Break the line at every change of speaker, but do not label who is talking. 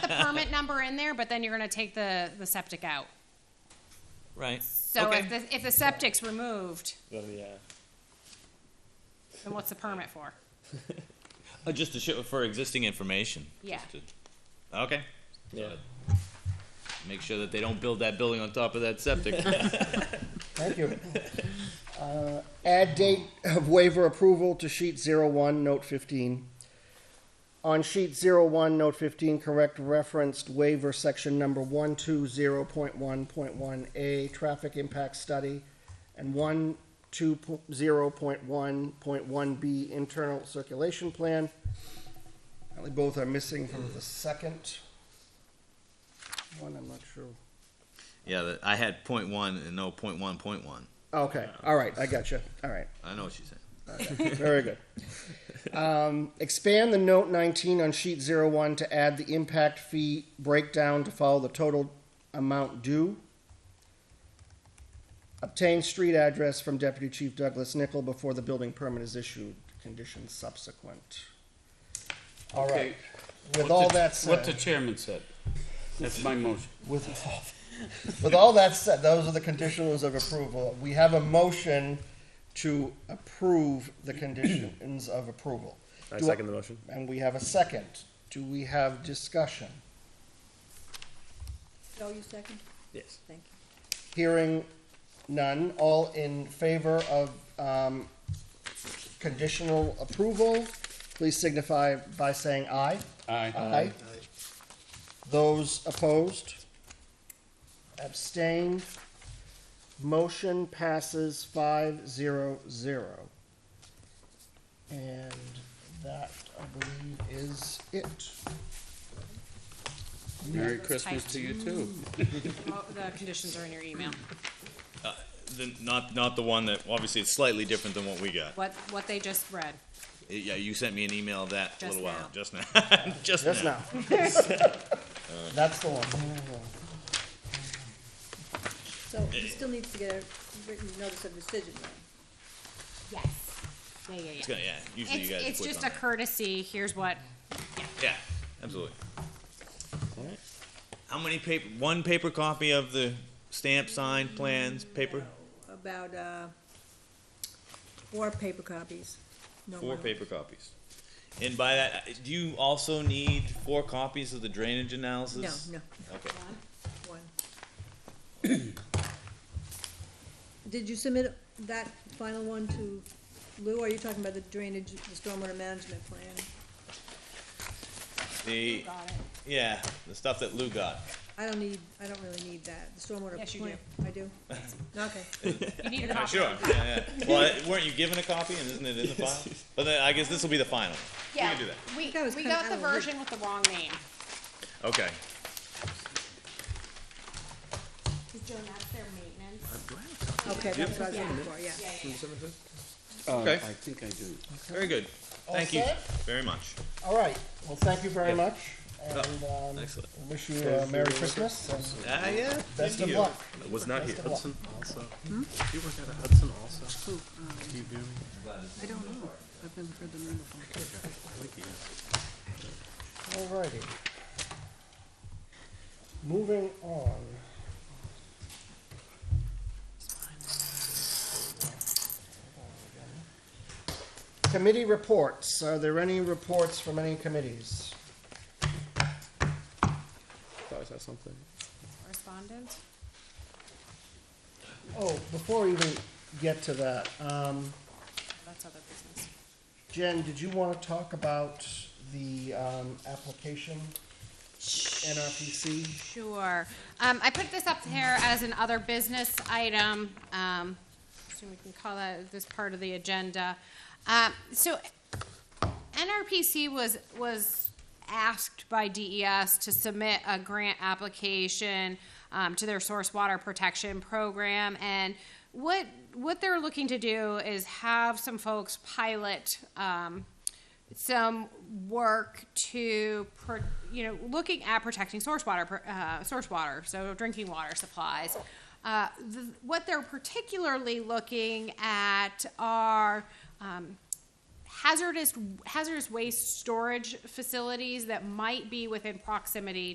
permit number in there, but then you're gonna take the, the septic out.
Right.
So
okay.
if the, if the septic's removed,
Oh, yeah.
then what's the permit for?
Oh, just to show for existing information.
Yeah.
Just to- okay.
Yeah.
Make sure that they don't build that building on top of that septic.
Thank you. Uh, Add date of waiver approval to sheet zero one, note fifteen. On sheet zero one, note fifteen, correct referenced waiver section number one two zero point one point one A, traffic impact study, and one two zero point one point one B, internal circulation plan. Apparently both are missing from the second. One, I'm not sure.
yeah, that, I had point one and no point one, point one.
Okay, all right, I got you, all right.
I know what she's saying.
Very good. Um, expand the note 19 on sheet 01 to add the impact fee breakdown to follow the total amount due. Obtain street address from Deputy Chief Douglas Nickel before the building permit is issued, conditions subsequent. All right, with all that
What the
said,
chairman said. That's my motion.
with, with all that said, those are the conditions of approval. We have a motion to approve the conditions of approval.
I
Do I-
second the motion.
And we have a second. Do we have discussion?
Joe, Oh, you second?
Yes.
Thank you.
Hearing none, all in favor of um, conditional approval, please signify by saying aye.
Aye.
Aye. Those opposed? Abstained? Motion passes five zero zero. And that, I believe, is it.
Merry Christmas to you too.
Mo- Oh, The conditions are in your email.
The, not not the one that obviously it's slightly different than what we got.
What, what they just read.
Yeah, you sent me an email of that a
Just
little while
now.
just now. just
Just
now.
now. That's the one.
So he still needs to get a written notice of decision then.
Yes. Yeah, yeah, yeah.
It's gonna- yeah, usually
It's,
you guys.
it's
click
just
on
a courtesy, here's what,
that. Yeah, absolutely. How many paper? One paper copy of the stamp, signed plans, paper.
About, uh, four paper copies. No
Four
more.
paper copies. And by that, do you also need four copies of the drainage analysis?
No, no,
Okay.
one. Did you submit that final one to Lou, or are you talking about the drainage, the stormwater management plan?
The,
got it.
yeah, the stuff that Lou got.
I don't need, I don't really need that, the stormwater plan.
Yes, you
I do? Okay,
You need a copy.
Sure, yeah, yeah. Well, I- weren't you given a copy and isn't it in the file? But then I guess this will be the final. We
Yeah,
can do that.
we,
That was
we
kinda
got the
out of the loop.
version with the wrong name.
Okay.
Joan, that's their maintenance.
okay, that's what I was looking for, yeah.
Okay.
I think I do.
Very good.
All
Thank you
set?
very much.
All right, well, thank you very
Yeah.
much, and, um,
Excellent.
I wish you a Merry Christmas and
Ah, yeah. same
best of
to you.
luck.
Was not here.
Best of luck.
also. Do you work out of Hudson also? Do you do? I don't know. I've never heard the name before.
All righty. Moving on. Committee reports, are there any reports from any committees?
Thought I saw something.
Correspondent?
Oh, before we even get to that, um,
That's other business.
Jen, did you want to talk about the um, application, NRPC?
Sure. Um, I put this up here as an other business item. Um, so we can call that this part of the agenda. Um, so NRPC was, was asked by DES to submit a grant application um, to their source water protection program. And what, what they're looking to do is have some folks pilot um, some work to, pro- you know, looking at protecting source water, pr- uh, source water, so drinking water supplies. Uh, th- What they're particularly looking at are um, hazardous hazardous waste storage facilities that might be within proximity